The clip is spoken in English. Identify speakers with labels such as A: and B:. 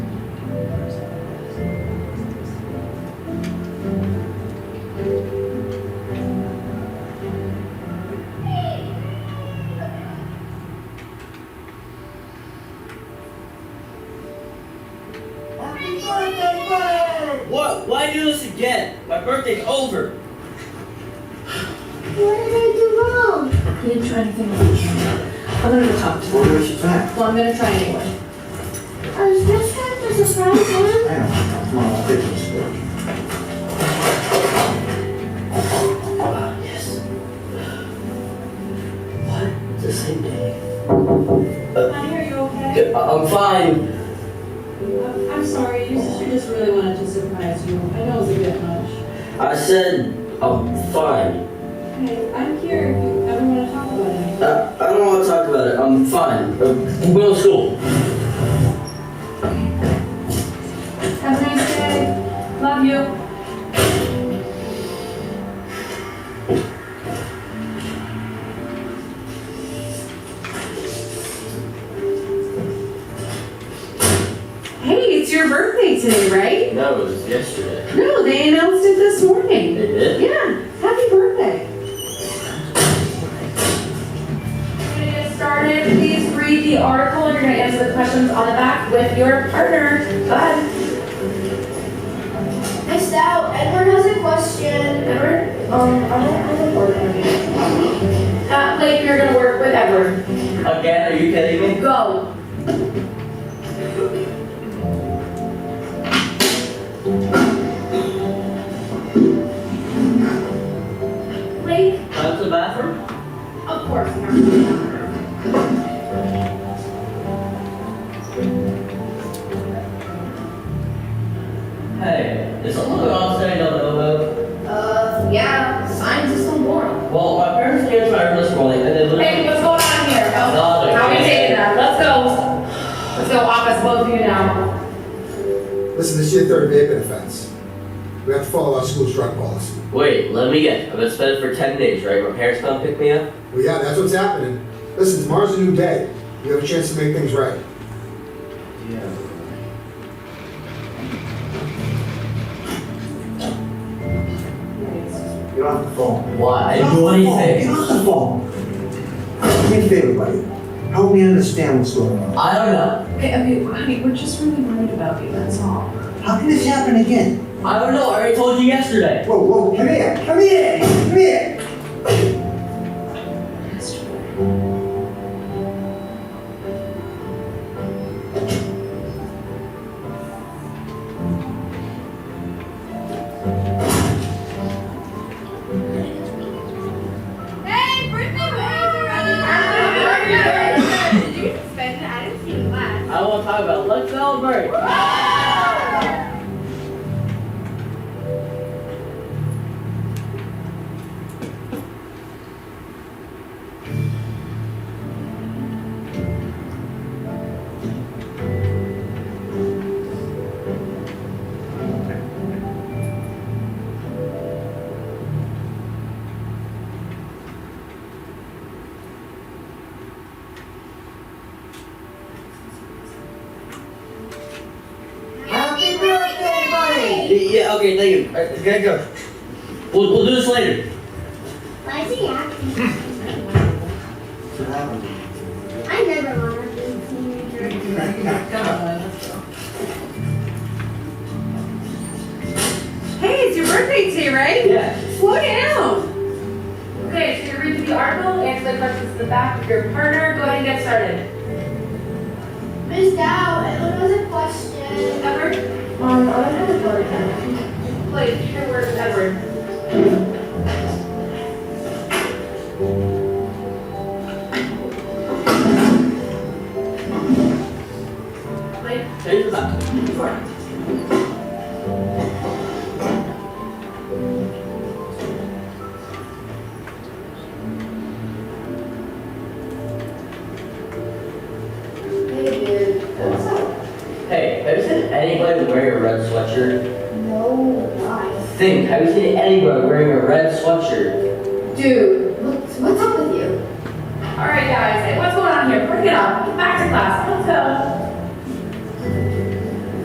A: What? Why do this again? My birthday's over.
B: What did I do wrong? I didn't try anything wrong. I'm gonna go talk to
C: Well,
B: them.
C: where's she back?
B: Well, I'm gonna try anyway.
D: I was just trying to surprise him.
C: Hang on, come on, I'll take this.
A: Ah, yes.
E: What? It's the same day.
F: Honey, are you okay?
E: Yeah, I- I'm fine.
F: Uh, I'm sorry, your sister just really wanted to surprise you. I know it's a bit much.
E: I said I'm fine.
F: Hey, I'm here if you ever want to talk about it.
E: I, Uh, I don't want to talk about it. I'm fine. Uh, I'm going to school.
F: Have a nice day. Love you.
G: Hey, it's your birthday today, right?
E: No, it was yesterday.
G: No, they announced it this
E: They
G: morning.
E: did?
G: Yeah, happy birthday.
H: We're gonna get started. Please read the article and you're gonna answer the questions on the back with your partner, Bud.
D: Missed out. Edward has a question.
H: Edward,
D: Um, I don't have a board.
H: at Lake, you're gonna work with Edward.
E: Again? Are you kidding me?
H: Go. Lake,
E: Out to the bathroom?
H: of course. not.
E: Hey, is something going on today I don't know about?
H: Uh, yeah, science is tomorrow.
E: Well, my parents came to my room this morning and they
H: Hey,
E: literally...
H: what's going on here?
E: No,
H: Oh,
E: they're
H: how we
E: kidding.
H: taking that? Let's go. Let's go office, both of you now.
I: Listen, this is your third vaping offense. We have to follow our school's drug policy.
E: Wait, let me guess. I've been suspended for 10 days, right? My parents come pick me up?
I: Well, yeah, that's what's happening. Listen, tomorrow's a new day. You have a chance to make things right.
C: Yeah. Get off the phone.
E: Why? I
C: Get
E: didn't
C: off
E: do
C: the phone. Get
E: anything.
C: off the phone. Do me a favor, buddy. Help me understand what's going on.
E: I don't know.
B: Okay, okay, honey, we're just really worried about you, that's all.
C: How can this happen again?
E: I don't know. I already told you yesterday.
C: Whoa, whoa, come here, come here, come here.
D: Hey, birthday Happy birthday! Did you spend it? I didn't see it last.
E: I want to talk about Let's Celebrate.
C: Happy birthday, buddy.
E: Yeah, okay, thank you. Alright, gotta go. We'll, we'll do this later.
D: Why is he acting?
C: That's what happened.
D: I never wanna be a teenager.
G: Hey, it's your birthday today, right?
E: Yeah.
G: Slow down.
H: Okay, so you're reading the article, answer the questions in the back with your partner. Go ahead and get started.
D: Missed out. Edward has a question.
H: Edward,
B: Um, I don't have a board yet.
H: please, your word, Edward. Mike,
E: Change the back.
D: Hey, dude. What's up?
E: Hey, have you seen anybody wearing a red sweatshirt?
D: No, why?
E: Think, have you seen anybody wearing a red sweatshirt?
H: dude.
D: What's, what's up with you?
H: All right, guys, what's going on here? Bring it up. Back to class. Let's go.